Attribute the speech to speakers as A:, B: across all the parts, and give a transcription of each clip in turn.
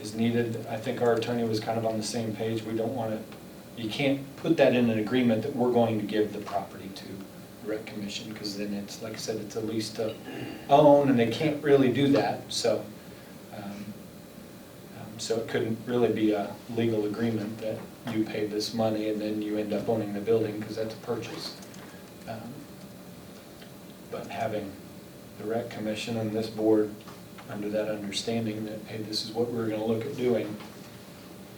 A: was needed. I think our attorney was kind of on the same page. We don't want to, you can't put that in an agreement that we're going to give the property to the rec commission, because then it's, like I said, it's a lease to own, and they can't really do that, so. um, um, So it couldn't really be a legal agreement that you pay this money and then you end up owning the building, because that's a purchase. Um, But having the rec commission and this board under that understanding that, hey, this is what we're gonna look at doing,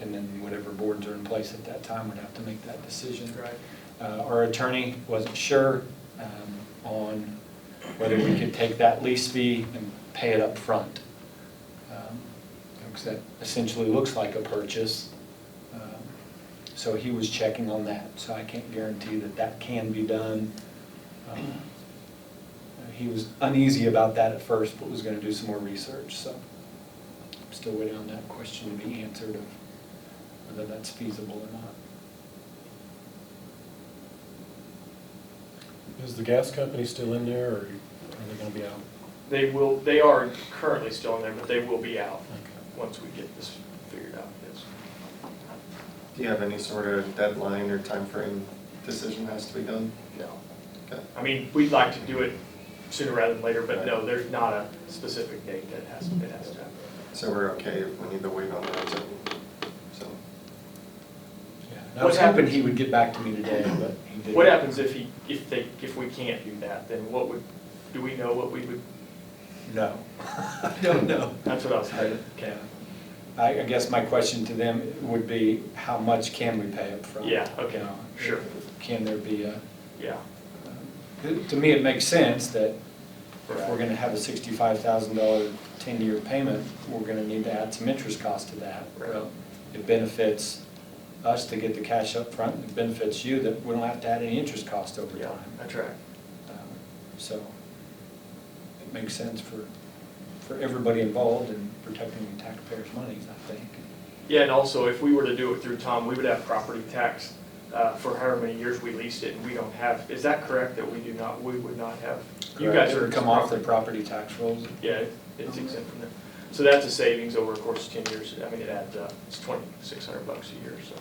A: and then whatever boards are in place at that time would have to make that decision.
B: Right.
A: Uh, Our attorney wasn't sure um, on whether we could take that lease fee and pay it Um, up front, Because that essentially looks like a purchase. Um, So he was checking on that, so I can't guarantee that that can be done. Um, He was uneasy about that at first, but was gonna do some more research, so I'm still waiting on that question to be answered of whether that's feasible or not.
C: Is the gas company still in there, or are they gonna be out?
B: They will, they are currently still in there, but they will be out
C: Okay.
B: once we get this figured out, yes.
D: Do you have any sort of deadline or timeframe decision has to be done?
B: No.
D: Okay.
B: I mean, we'd like to do it sooner rather than later, but no, there's not a specific date that has, it has to happen.
D: So we're okay if we need to wait on that, so, so,
A: Yeah, and I was
B: What happened-
A: hoping he would get back to me today, but he didn't.
B: What happens if he, if they, if we can't do that, then what would, do we know what we would,
A: No. I don't know.
B: that's what I was thinking.
A: Yeah. I, I guess my question to them would be, how much can we pay upfront?
B: Yeah, okay,
A: You know,
B: sure.
A: Can there be a,
B: Yeah,
A: to me, it makes sense that if we're
B: Right.
A: gonna have a sixty-five thousand dollar ten-year payment, we're gonna need to add some interest cost to that.
B: Right.
A: Well, It benefits us to get the cash up front. it benefits you that we don't have to add any interest cost over
B: yeah,
A: time.
B: that's right.
A: Um, So it makes sense for, for everybody involved in protecting the taxpayers' monies, I think.
B: Yeah, and also, if we were to do it through Tom, we would have property tax uh, for however many years we leased it, and we don't have, is that correct, that we do not, we would not have? You guys
A: It
B: are.
A: would Come off the property tax rolls.
B: Yeah, it's exempt from there. So that's a savings over a course of ten years, I mean, it adds up, it's twenty-six hundred bucks a year, so,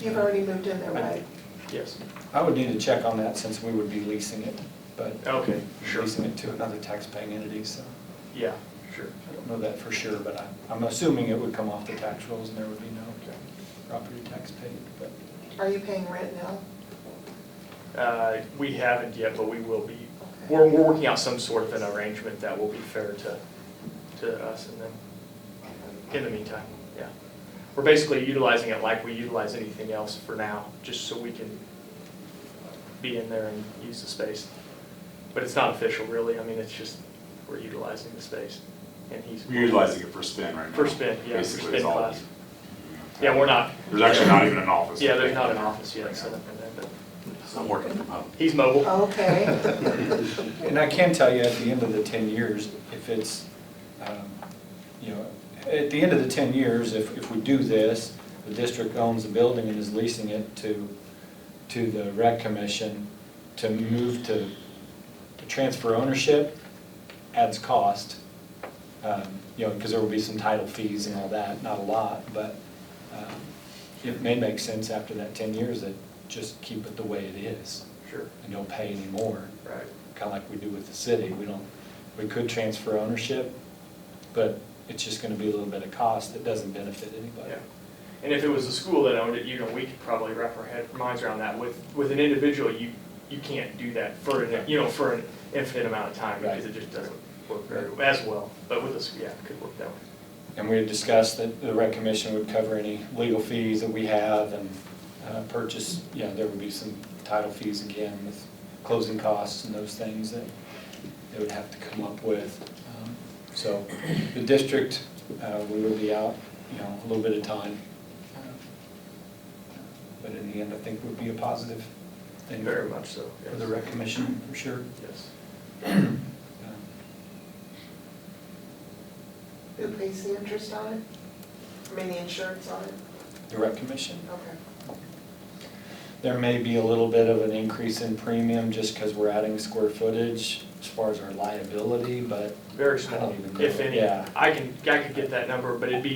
E: You've already moved in there, right?
B: yes,
A: I would need to check on that since we would be leasing it, but
B: okay, sure,
A: leasing it to another taxpaying entity, so
B: yeah, sure.
A: I don't know that for sure, but I- I'm assuming it would come off the tax rolls and there would be no property tax paid, but.
E: Are you paying rent now?
B: Uh, We haven't yet, but we will be, we're, we're working out some sort of an arrangement that will be fair to, to us and them. In the meantime, yeah. We're basically utilizing it like we utilize anything else for now, just so we can be in there and use the space. But it's not official really, I mean, it's just, we're utilizing the space and he's.
F: We're utilizing it for spin right now.
B: For spin, yeah, for
F: Basically,
B: spin
F: is all
B: class.
F: we-
B: Yeah, we're not.
F: There's actually not even an office.
B: Yeah, there's not an office yet set up in there, but
F: It's not working from home.
B: he's mobile.
E: Oh. Okay.
A: And I can tell you, at the end of the 10 years, if it's, um, you know, at the end of the 10 years, if, if we do this, the district owns the building and is leasing it to, to the rec commission, to move to, to transfer ownership adds cost. Um, You know, because there will be some title fees and all that, not a lot, but um, it may make sense after that 10 years that just keep it the way it is
B: Sure,
A: and don't pay any more
B: right.
A: kind of like we do with the city. We don't, we could transfer ownership, but it's just gonna be a little bit of cost that doesn't benefit anybody.
B: Yeah, and if it was a school that owned it, you know, we could probably wrap our head, minds around that. With, with an individual, you, you can't do that for, an you know, for an infinite amount of time, because it just doesn't work very, as well. But with a, s- yeah, it could work that way.
A: And we had discussed that the rec commission would cover any legal fees that we have and uh, purchase, yeah, there would be some title fees again with closing costs and those things that they would have to come up with. Um, So the district, uh, we will be out, you know, a little bit of time. Uh, But in the end, I think would be a positive thing.
B: Very much so,
A: For the
B: yes.
A: rec commission, for sure.
B: Yes.
E: Who pays the interest on it? I mean, the insurance on it?
A: The rec commission.
E: Okay.
A: There may be a little bit of an increase in premium just because we're adding square footage as far as our liability, but
B: Very
A: I
B: small,
A: don't even know.
B: if any.
A: Yeah.
B: I can, I could get that number, but it'd be